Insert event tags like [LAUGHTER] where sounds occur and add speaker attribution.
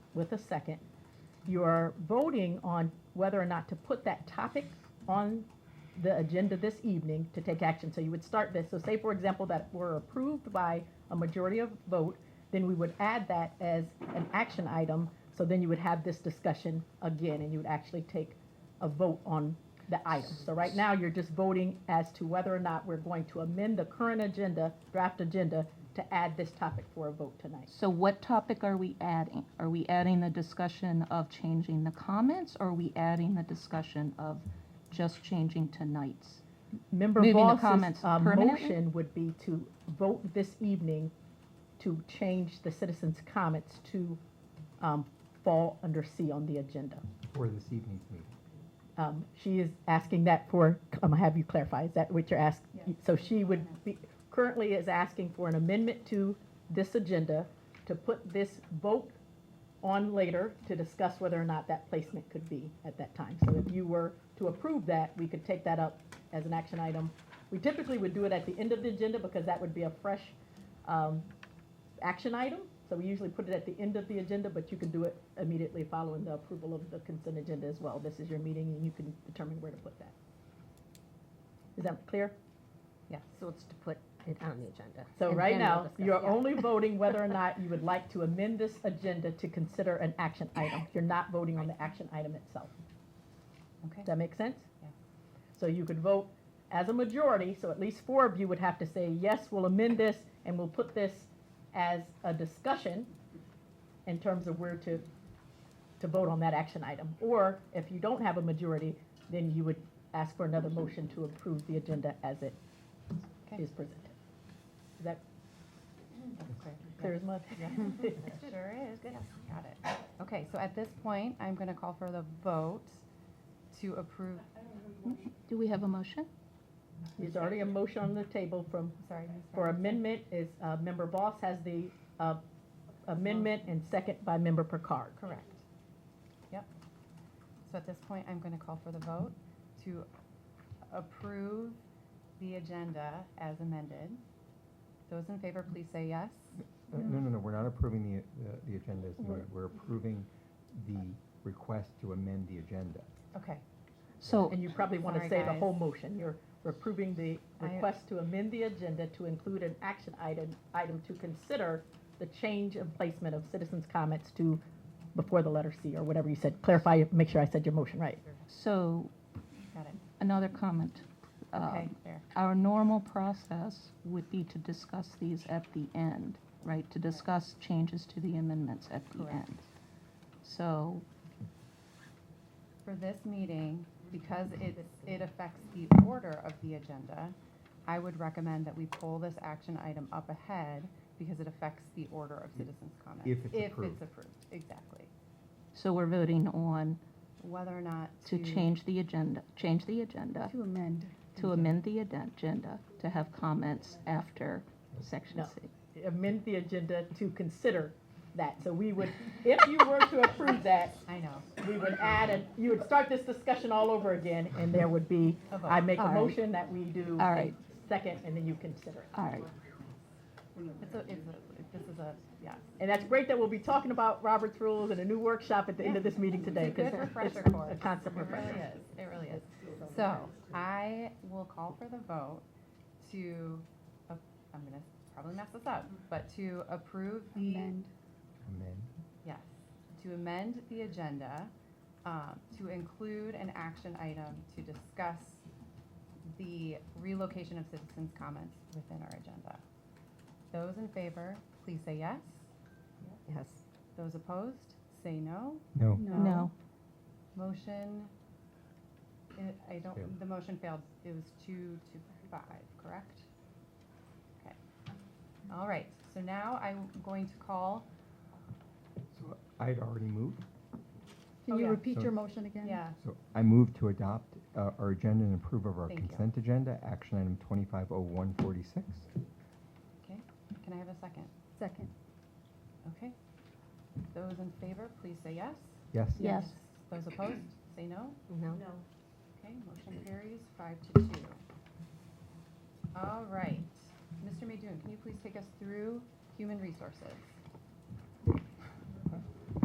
Speaker 1: with a second. You're voting on whether or not to put that topic on the agenda this evening to take action. So you would start this, so say, for example, that were approved by a majority of vote, then we would add that as an action item. So then you would have this discussion again, and you would actually take a vote on the item. So right now, you're just voting as to whether or not we're going to amend the current agenda, draft agenda, to add this topic for a vote tonight.
Speaker 2: So what topic are we adding? Are we adding the discussion of changing the comments, or are we adding the discussion of just changing tonight's?
Speaker 1: Member
Speaker 2: Moving the
Speaker 1: Voss's
Speaker 2: comments
Speaker 1: uh,
Speaker 2: permanently?
Speaker 1: motion would be to vote this evening to change the citizens' comments to um, fall under C on the agenda.
Speaker 3: for this evening's meeting.
Speaker 1: Um, She is asking that for, um, have you clarify, is that what you're asking? So she would be, currently is asking for an amendment to this agenda to put this vote on later to discuss whether or not that placement could be at that time. So if you were to approve that, we could take that up as an action item. We typically would do it at the end of the agenda because that would be a fresh um, action item. So we usually put it at the end of the agenda, but you can do it immediately following the approval of the consent agenda as well. This is your meeting and you can determine where to put that. Is that clear?
Speaker 4: Yeah, so it's to put it on the agenda.
Speaker 1: So
Speaker 4: and
Speaker 1: right
Speaker 4: then we'll
Speaker 1: now,
Speaker 4: discuss.
Speaker 1: you're
Speaker 4: Yeah. [LAUGHS]
Speaker 1: only voting whether or not you would like to amend this agenda to consider an action item. You're not voting on the action item itself.
Speaker 2: Okay.
Speaker 1: Does that make sense?
Speaker 2: Yeah.
Speaker 1: So you could vote as a majority, so at least four of you would have to say, yes, we'll amend this and we'll put this as a discussion in terms of where to, to vote on that action item. Or if you don't have a majority, then you would ask for another motion to approve the agenda as it
Speaker 2: Okay.
Speaker 1: is presented. Is that
Speaker 5: Okay.
Speaker 1: clear as mud?
Speaker 5: That Sure is, good, got it. Okay, so at this point, I'm gonna call for the vote to approve,
Speaker 2: Do we have a motion?
Speaker 1: [LAUGHS] There's already a motion on the table from,
Speaker 5: sorry. Ms.
Speaker 1: for
Speaker 5: Robinson.
Speaker 1: amendment is, uh, Member Boss has the, uh, amendment and second by Member Picard.
Speaker 5: Correct. Yep. So at this point, I'm gonna call for the vote to approve the agenda as amended. Those in favor, please say yes.
Speaker 3: Uh,
Speaker 5: Mm.
Speaker 3: No, no, no, we're not approving the, the- the agenda as
Speaker 1: We're-
Speaker 3: moved. We're approving the request to amend the agenda.
Speaker 5: Okay,
Speaker 2: So,
Speaker 1: And you probably want to
Speaker 5: Sorry,
Speaker 1: say the
Speaker 5: guys.
Speaker 1: whole motion. You're approving the
Speaker 5: I-
Speaker 1: request to amend the agenda to include an action item, item to consider the change of placement of citizens' comments to before the letter C or whatever you said. Clarify, make sure I said your motion right.
Speaker 2: so
Speaker 5: got it.
Speaker 2: another comment. Um,
Speaker 5: Okay, there.
Speaker 2: Our normal process would be to discuss these at the end, right? To discuss changes to the amendments at the
Speaker 5: Correct.
Speaker 2: end. So
Speaker 5: For this meeting, because it, it affects the order of the agenda, I would recommend that we pull this action item up ahead because it affects the order of citizens' comments.
Speaker 3: If it's approved.
Speaker 5: exactly.
Speaker 2: So we're voting on
Speaker 5: Whether or not
Speaker 2: to
Speaker 5: to.
Speaker 2: change the agenda, change the agenda. To amend. To amend the aden- agenda, to have comments after section
Speaker 1: No.
Speaker 2: C.
Speaker 1: Amend the agenda to consider that. So we would, if you were to approve that,
Speaker 5: I know.
Speaker 1: we would add, and you would start this discussion all over again, and there would be,
Speaker 5: A vote.
Speaker 1: I make a
Speaker 2: All right.
Speaker 1: motion that we do
Speaker 2: All
Speaker 1: a
Speaker 2: right.
Speaker 1: second, and then you consider it.
Speaker 2: All right,
Speaker 5: It's a, it's a, this is a, yeah.
Speaker 1: And that's great that we'll be talking about Robert's Rules and a new workshop at the end of this meeting today.
Speaker 5: It's a
Speaker 1: 'cause
Speaker 5: good refresher
Speaker 1: it's
Speaker 5: course.
Speaker 1: A concept
Speaker 5: It really
Speaker 1: refresher.
Speaker 5: is, it really is. So I will call for the vote to, uh, I'm gonna probably mess this up, but to approve the.
Speaker 3: Amend.
Speaker 5: Yes, to amend the agenda um, to include an action item to discuss the relocation of citizens' comments within our agenda. Those in favor, please say yes.
Speaker 4: Yes.
Speaker 5: Those opposed, say no.
Speaker 3: No.
Speaker 2: no,
Speaker 5: Motion, I- I
Speaker 3: Failed.
Speaker 5: don't, the motion failed. It was two to five, correct? Okay. All right, so now I'm going to call,
Speaker 3: So I'd already moved.
Speaker 5: Oh,
Speaker 6: Can you
Speaker 5: yeah.
Speaker 6: repeat
Speaker 3: So-
Speaker 6: your motion again?
Speaker 5: yeah,
Speaker 3: So I moved to adopt uh, our agenda and approve of our
Speaker 5: Thank you.
Speaker 3: consent agenda, action item 250146.
Speaker 5: okay. Can I have a second?
Speaker 6: Second.
Speaker 5: Okay. Those in favor, please say yes.
Speaker 3: Yes?
Speaker 2: Yeah. Yes.
Speaker 5: Those opposed, say no.
Speaker 4: No?
Speaker 5: Okay, motion carries five to two. All right. Mr. Maydoun, can you please take us through human resources?